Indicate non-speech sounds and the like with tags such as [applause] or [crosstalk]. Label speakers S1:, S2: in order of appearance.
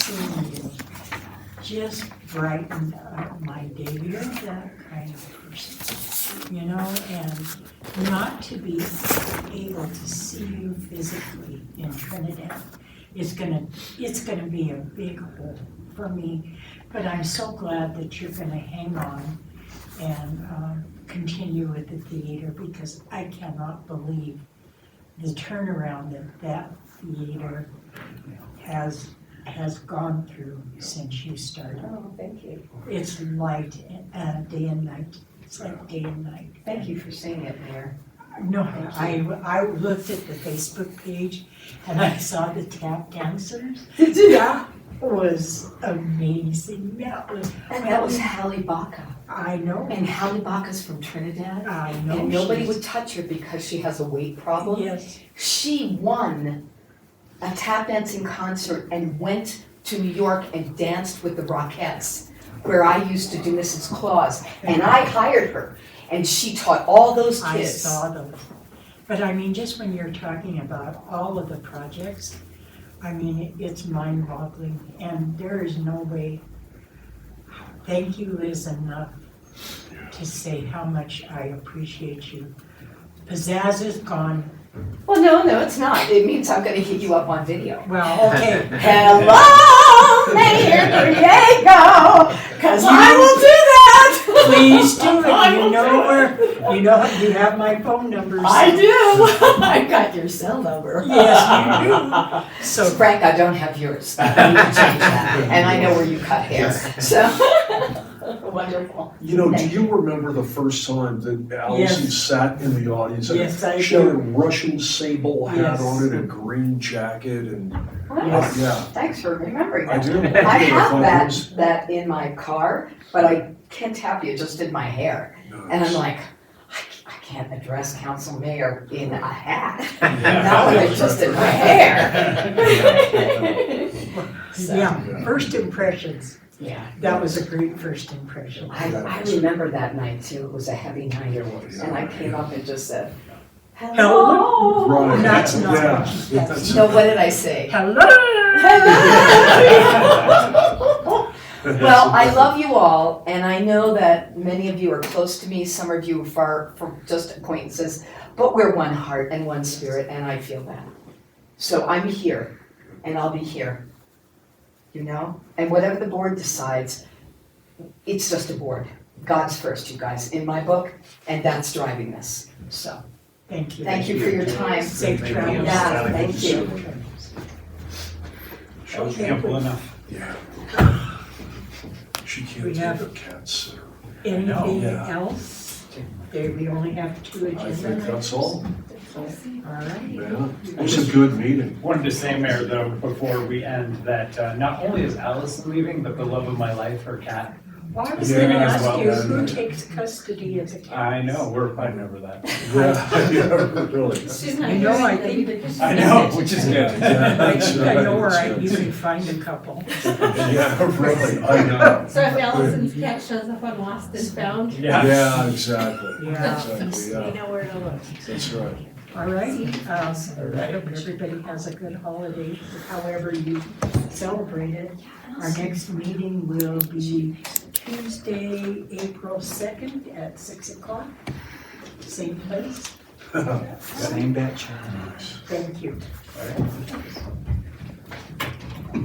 S1: just brightened up my day. You're that kind of person, you know, and not to be able to see you physically in Trinidad is gonna, it's gonna be a big hole for me. But I'm so glad that you're gonna hang on and um, continue with the theater because I cannot believe the turnaround that that theater has, has gone through since you started.
S2: Oh, thank you.
S1: It's light, uh, day and night, it's like day and night.
S2: Thank you for saying it, Mayor.
S1: No, I, I looked at the Facebook page and I saw the tap dancers.
S2: [laughs] Did
S1: That was amazing, that was,
S2: And Oh, that was Hallie Baca.
S1: I know,
S2: And Hallie Baca's from Trinidad.
S1: I know.
S2: And nobody
S1: she's-
S2: would touch her because she has a weight problem.
S1: Yes,
S2: She won a tap dancing concert and went to New York and danced with the Rockettes, where I used to do Mrs. Claus. And I hired her, and she taught all those
S1: I
S2: kids.
S1: saw those. But I mean, just when you're talking about all of the projects, I mean, it's mind boggling and there is no way. Thank you is enough to say how much I appreciate you. Pizzazz is gone.
S2: Well, no, no, it's not. It means I'm going to hit you up on video.
S1: Well, okay.
S2: Hello, Mayor Diego, because I will do that.
S1: Please do [laughs] it. You know
S2: where.
S1: where, you know, you have my phone number. so-
S2: [laughs] I do. [laughs] I've got your cell number.
S1: [laughs] Yes, you do. So
S2: Frank, I don't have yours. I need to change that. And I know where you cut hair, so. [laughs] Wonderful.
S3: You know, do you remember the first time that Allison
S1: Yes.
S3: sat in the audience? and
S1: Yes, I
S3: She had a
S1: do.
S3: Russian sable hat
S1: Yes.
S3: on and a green jacket and,
S1: Yes.
S3: yeah,
S2: Thanks for remembering
S3: I
S2: that.
S3: do.
S2: I have that,
S3: Nice.
S2: that in my car, but I can't tap you, it just in my hair. And I'm like, I, c- I can't address council mayor in a
S3: [laughs]
S2: hat. Not when it's just in my hair. So,
S1: Yeah, first impressions.
S2: yeah,
S1: That was a great first impression.
S2: I, I remember that night too. It was a heavy night. And I came up and just said, hello.
S3: Right.
S1: That's not-
S3: Yeah.
S1: that's-
S2: No, what did
S3: [laughs]
S1: [laughs]
S2: I say?
S1: Hello!
S2: Hello. Well, I love you all, and I know that many of you are close to me, some of you are far from just acquaintances, but we're one heart and one spirit, and I feel that. So I'm here, and I'll be here, you know? And whatever the board decides, it's just a board. God's first, you guys, in my book, and that's driving this. So,
S1: Thank you.
S2: thank you for your time.
S1: Safe travels.
S2: Yeah, thank you.
S4: Shows
S1: Okay.
S4: you ample enough.
S3: Yeah. She
S1: We
S3: can't
S1: have-
S3: take a cat sitter.
S1: Anything
S3: Yeah.
S1: else? There, we only have two
S3: I think
S1: agendas.
S3: that's all,
S1: All right.
S3: yeah. It was a good meeting.
S4: Wanted to say, Mayor, though, before we end, that uh, not only is Allison leaving, but the love of my life, her cat.
S1: Well, I was
S3: Yeah,
S1: gonna
S4: as
S1: ask
S4: well,
S1: you,
S4: then.
S1: who takes custody of the cats?
S4: I know, we're fighting over that.
S3: Yeah, [laughs] yeah, really.
S5: She's not
S1: You
S5: here.
S1: know, I
S5: but
S1: think-
S5: even-
S4: I know, which is good.
S1: I
S4: [laughs]
S1: think I know where I,
S3: That's
S1: you
S3: right.
S1: can find a couple.
S3: Yeah, really, I know.
S5: So if Allison's cat shows up on Lost and Found, you
S4: Yeah.
S3: Yeah, exactly.
S1: Yeah.
S3: Exactly,
S5: [laughs]
S3: yeah,
S5: know where to look.
S3: that's right.
S1: All righty, um, I hope everybody has a good holiday, however you celebrate it. Our next meeting will be Tuesday, April second at six o'clock, same place.
S3: [laughs]
S4: Same bat channel.
S1: Thank you.